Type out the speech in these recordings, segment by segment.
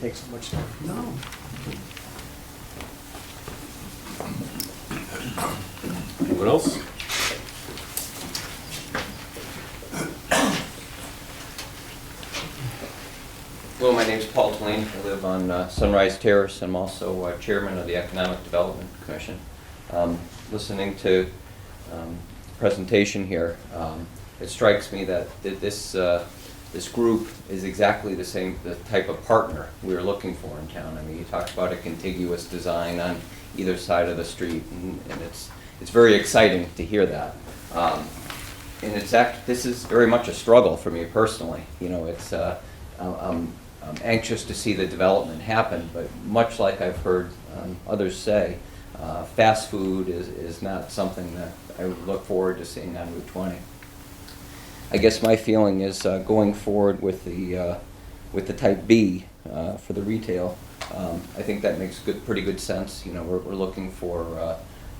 takes up much time. No. Anyone else? Hello, my name's Paul Twain. I live on uh, Sunrise Terrace. I'm also uh, chairman of the Economic Development Commission. Um, Listening to um, the presentation here, um, it strikes me that th- this, uh, this group is exactly the same, the type of partner we are looking for in town. I mean, you talked about a contiguous design on either side of the street, and and it's, it's very exciting to hear that. Um, and it's act, this is very much a struggle for me personally. You know, it's, uh, I'm- I'm, I'm anxious to see the development happen, but much like I've heard, um, others say, uh, fast food is, is not something that I would look forward to seeing on Route twenty. I guess my feeling is uh, going forward with the, uh, with the type B uh, for the retail, um, I think that makes good, pretty good sense. You know, we're, we're looking for, uh,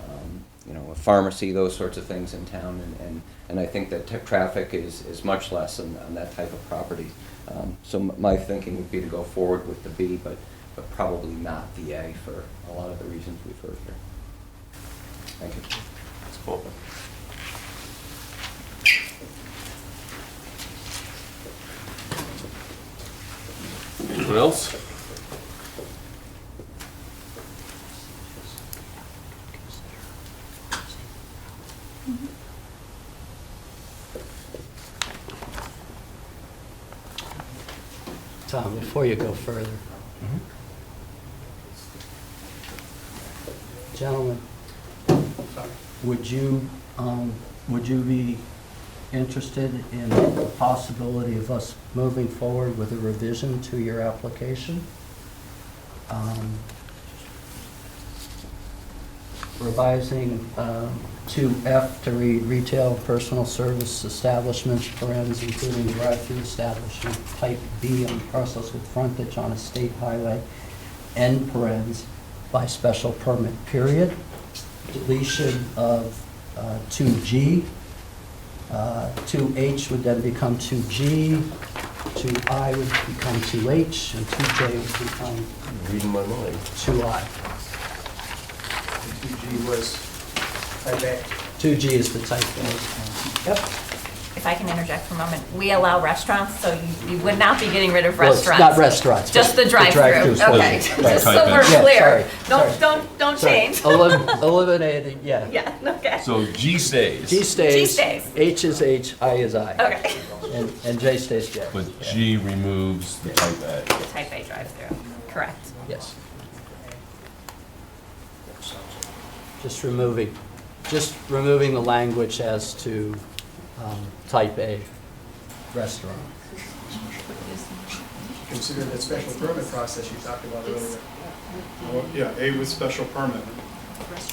um, you know, a pharmacy, those sorts of things in town, and, and, and I think that tra- traffic is, is much less on, on that type of property. Um, So m- my thinking would be to go forward with the B, but, but probably not the A for a lot of the reasons we've heard here. Thank you. That's cool. Anyone else? Tom, before you go further. Gentlemen, would you, um, would you be interested in the possibility of us moving forward with a revision to your application? Um, Revising two F to read retail and personal service establishments, parens, including drive-through establishment, type B on parcels with frontage on a state highway, and parens by special permit, period. Deletion of uh, two G. Uh, Two H would then become two G, two I would become two H, and two J would become Reading my mind. two I. Two G was, I bet, Two G is the type A. Yep. if I can interject for a moment, we allow restaurants, so you, you would not be getting rid of Well, it's restaurants. not restaurants, Just but the the drive-through, drive-throughs. okay. Yeah, Just so type we're in. Yeah, clear. sorry, Don't, don't, don't Sorry. change. Elim- Eliminated, yeah. Yeah, okay, So G G stays, stays. G stays. H is H, I is I. okay. And, and J stays J. but G removes the type A. The type A drive-through, correct. Yes. Just removing, just removing the language as to um, type A restaurant. consider that special permit process you talked about earlier. Well, Yeah, A with special permit.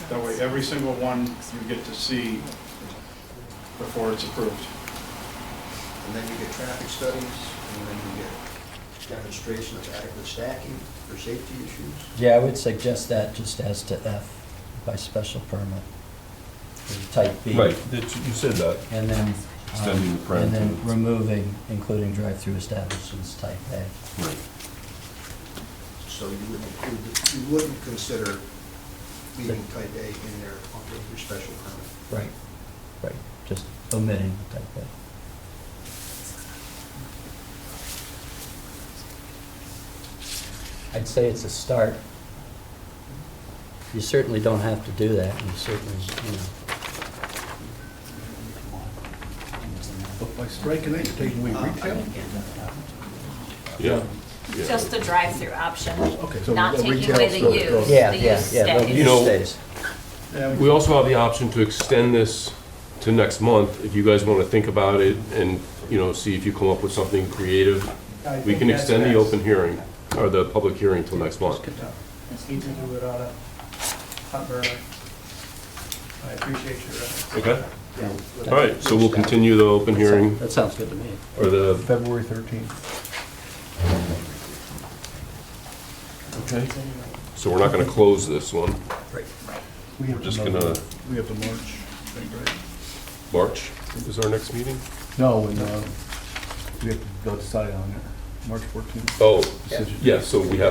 That way, every single one you get to see before it's approved. And then you get traffic studies, and then you get demonstration of adequate stacking for safety issues. Yeah, I would suggest that just as to F by special permit. or Type B. Right, that- you said that. And then, um, Extending the and then parentheses. removing, including drive-through establishments type A. Right. So you would include, you wouldn't consider leaving type A in there on your special permit. Right. Right, just omitting type A. I'd say it's a start. You certainly don't have to do that, you certainly, you know. By striking it, you're taking Uh, away retail? Yeah. Just the drive-through option, Okay, so not the taking retail away the store- U, Yeah, the yeah, use yeah, You stays. know- stays. We also have the option to extend this to next month, if you guys want to think about it and, you know, see if you come up with something creative. I We think can that's extend the best. open hearing, or the public hearing till next month. It's easy to do it on a hot burner. I appreciate your efforts. Okay? All right, so we'll continue the open hearing, That sounds good to me. or the, February 13th. okay? So we're not going to close this one, We have we're just to going to, We have to March, I think, right? March is our next meeting? No, and uh, we have to go decide on it. March 14th. Oh, yes, so we have